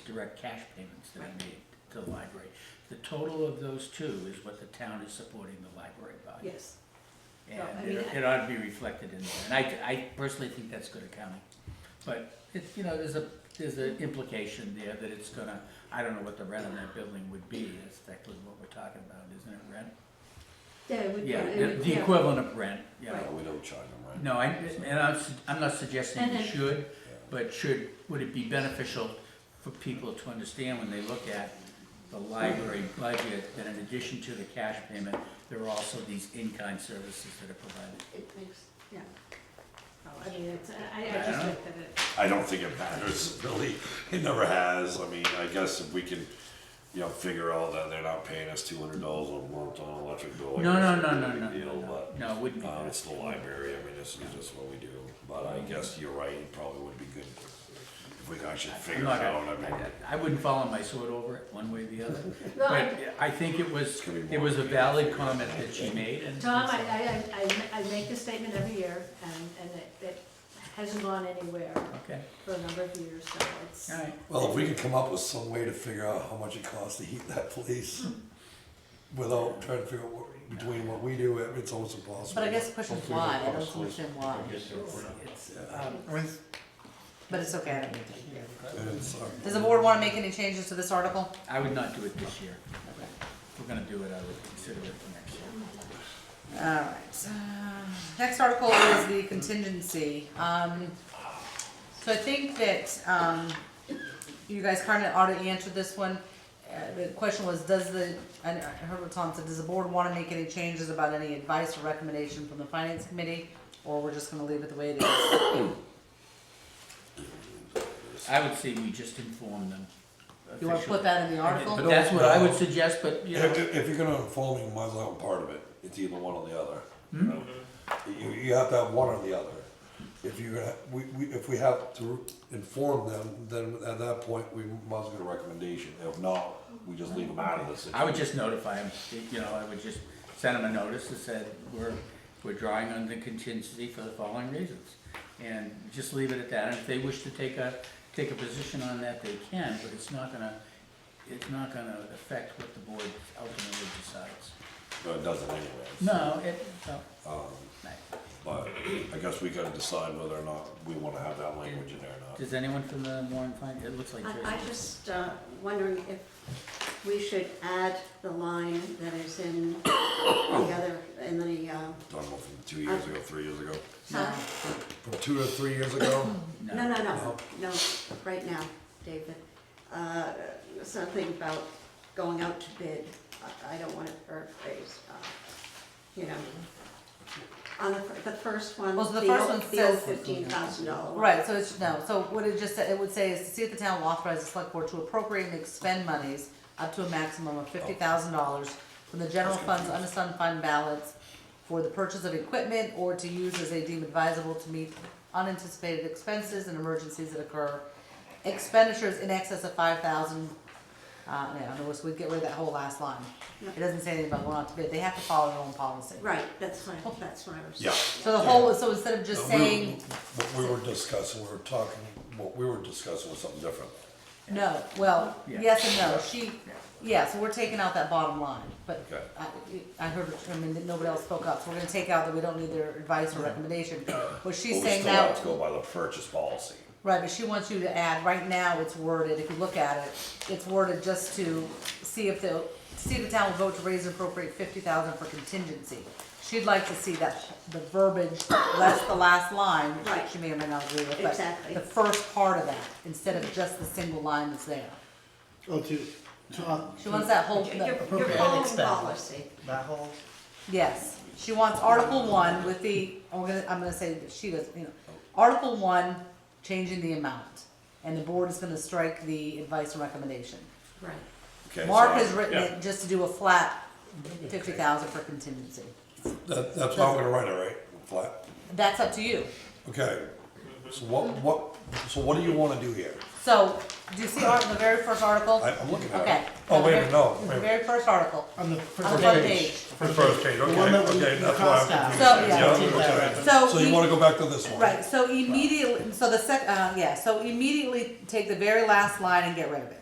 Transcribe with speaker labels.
Speaker 1: direct cash payments that are made to the library. The total of those two is what the town is supporting the library by.
Speaker 2: Yes, Well, I
Speaker 1: And
Speaker 2: mean,
Speaker 1: it it ought to be reflected in there, and I, I personally think that's good accounting. But it's, you know, there's a, there's an implication there that it's gonna, I don't know what the rent on that building would be, that's technically what we're talking about, isn't it rent?
Speaker 2: yeah, it would,
Speaker 1: Yeah,
Speaker 2: it
Speaker 1: the-
Speaker 2: would-
Speaker 1: the
Speaker 2: yeah.
Speaker 1: equivalent of rent, yeah.
Speaker 2: Right.
Speaker 3: No, we don't charge them rent.
Speaker 1: No, I, and I'm, s- I'm not suggesting
Speaker 2: And
Speaker 1: you
Speaker 2: then-
Speaker 1: should,
Speaker 3: Yeah.
Speaker 1: but should, would it be beneficial for people to understand when they look at the library budget, that in addition to the cash payment, there are also these in-kind services that are provided?
Speaker 2: It makes, yeah. Oh, I mean, it's, I, I just
Speaker 1: Yeah.
Speaker 2: think that it,
Speaker 3: I don't think it matters really. It never has. I mean, I guess if we can, you know, figure out that they're not paying us two hundred dollars a month on electric bill. I
Speaker 1: No, no,
Speaker 3: guess
Speaker 1: no,
Speaker 3: it's a
Speaker 1: no,
Speaker 3: big
Speaker 1: no,
Speaker 3: deal,
Speaker 1: no,
Speaker 3: but,
Speaker 1: no, it wouldn't be
Speaker 3: Um, it's
Speaker 1: that.
Speaker 3: the library. I mean, this is just what we do. But I guess you're right. It probably would be good if we could actually
Speaker 1: I'm
Speaker 3: figure it
Speaker 1: not
Speaker 3: out.
Speaker 1: gonna-
Speaker 3: I mean,
Speaker 1: I I wouldn't fall on my sword over it, one way or the other.
Speaker 2: No, I-
Speaker 1: But I think it was,
Speaker 3: gonna be
Speaker 1: it
Speaker 3: more
Speaker 1: was a
Speaker 3: than-
Speaker 1: valid comment that she made, and.
Speaker 2: Tom, I, I, I, I make this statement every year, and, and it, it hasn't gone anywhere
Speaker 1: Okay,
Speaker 2: for a number of years, so it's,
Speaker 1: all right.
Speaker 4: Well, if we could come up with some way to figure out how much it costs to heat that place
Speaker 1: Hmm.
Speaker 4: without trying to figure out what, between what we do, it- it's almost impossible.
Speaker 5: But I guess the question is
Speaker 4: Hopefully
Speaker 5: why, I
Speaker 4: it'll
Speaker 5: don't
Speaker 4: cost less.
Speaker 5: understand why,
Speaker 1: It's, um,
Speaker 5: but it's okay, I don't need to.
Speaker 4: And it's, uh,
Speaker 5: Does the board wanna make any changes to this article?
Speaker 1: I would not do it this year. If we're gonna do it, I would consider it for next year.
Speaker 5: Alright, next article is the contingency, um, so I think that, um, you guys kinda ought to answer this one. Uh, the question was, does the, and Herbert Tom said, does the board wanna make any changes about any advice or recommendation from the finance committee? Or we're just gonna leave it the way it is?
Speaker 1: I would say we just inform them.
Speaker 5: You wanna put that in the article?
Speaker 1: But That's what I would suggest, but, you know,
Speaker 4: If, if you're gonna inform me, you might as well have part of it, it's either one or the other. you know? You, you have to have one or the other. If you're gonna, we, we, if we have to inform them, then at that point, we must get a recommendation, if not, we just leave them out of this.
Speaker 1: I would just notify them, you know, I would just send them a notice that said, we're, we're drawing on the contingency for the following reasons. And just leave it at that, and if they wish to take a, take a position on that, they can, but it's not gonna, it's not gonna affect what the board ultimately decides.
Speaker 3: but it doesn't anyways. Um,
Speaker 1: No, it, no.
Speaker 3: But I guess we gotta decide whether or not we wanna have that language in there or not.
Speaker 1: Does anyone from the Warren find, it looks like Tracy.
Speaker 6: I, I just, uh, wondering if we should add the line that is in the other, in the,
Speaker 2: uh,
Speaker 6: um,
Speaker 3: Talking about from two years ago, three years ago.
Speaker 6: huh?
Speaker 4: From two to three years ago,
Speaker 1: No.
Speaker 6: no, no, no, no, right now, David. Uh, something about going out to bid, I, I don't want to paraphrase, uh, you know. On the, fir- the first one,
Speaker 5: Well, so the first one says-
Speaker 6: fifteen thousand dollar.
Speaker 5: Right, so it's, no, so what it just, said- it would say is to see if the town will authorize the select board to appropriate and expend monies up to a maximum of fifty thousand dollars from the general fund's unassigned fund balance for the purchase of equipment or to use as they deem advisable to meet unanticipated expenses and emergencies that occur. Expenditures in excess of five thousand, uh, no, in other words, we'd get rid of that whole last line. It doesn't say anything about going out to bid, they have to follow their own policy.
Speaker 6: Right, that's what, I- that's what I was.
Speaker 3: Yeah.
Speaker 5: So the whole, so instead of just
Speaker 4: We were-
Speaker 5: saying.
Speaker 4: What we were discussing, we were talking, what we were discussing was something different.
Speaker 5: No, well,
Speaker 1: Yeah.
Speaker 5: yes and no, she, yeah, so we're taking out that bottom line, but
Speaker 3: Okay.
Speaker 5: I, I heard, I mean, that nobody else spoke up, so we're gonna take out that we don't need their advice or recommendation. What
Speaker 3: But we
Speaker 5: she's saying
Speaker 3: still have to go
Speaker 5: now,
Speaker 3: by the purchase policy.
Speaker 5: right, but she wants you to add, right now it's worded, if you look at it, it's worded just to see if the, see if the town will vote to raise and appropriate fifty thousand for contingency. She'd like to see that, the verbiage, less the last line,
Speaker 6: Right.
Speaker 5: which she may or may not agree with, but
Speaker 6: Exactly.
Speaker 5: the first part of that, instead of just the single line that's there.
Speaker 7: Oh, to, to, uh,
Speaker 5: She wants that whole,
Speaker 6: Your, your
Speaker 5: the-
Speaker 7: Appropriate.
Speaker 6: phone
Speaker 7: Expend.
Speaker 6: policy.
Speaker 7: that whole,
Speaker 5: yes, she wants Article one with the, I'm gonna, I'm gonna say that she does, you know, Article one, changing the amount, and the board is gonna strike the advice and recommendation.
Speaker 6: Right.
Speaker 3: Okay, so
Speaker 5: Mark
Speaker 3: I-
Speaker 5: has written
Speaker 3: yeah.
Speaker 5: it just to do a flat fifty thousand for contingency.
Speaker 4: That, that's how I'm gonna write it, right? Flat.
Speaker 5: That's up to you.
Speaker 4: Okay, so what, what, so what do you wanna do here?
Speaker 5: So, do you see art, the very first article?
Speaker 4: I, I'm looking at
Speaker 5: Okay.
Speaker 4: it. Oh, wait a minute, no,
Speaker 5: The
Speaker 4: wait a
Speaker 5: very-
Speaker 4: minute.
Speaker 5: Very first article,
Speaker 7: on the
Speaker 5: on the
Speaker 7: first
Speaker 5: front
Speaker 7: page.
Speaker 5: page.
Speaker 4: The first page, okay,
Speaker 7: The one that we-
Speaker 4: okay,
Speaker 7: the
Speaker 4: that's why I'm
Speaker 7: cost out.
Speaker 4: confused.
Speaker 5: So, yeah.
Speaker 4: Yeah, okay.
Speaker 5: So
Speaker 4: So you
Speaker 5: we-
Speaker 4: wanna go back to this one?
Speaker 5: Right, so immediately, so the sec, uh, yeah, so immediately take the very last line and get rid of it.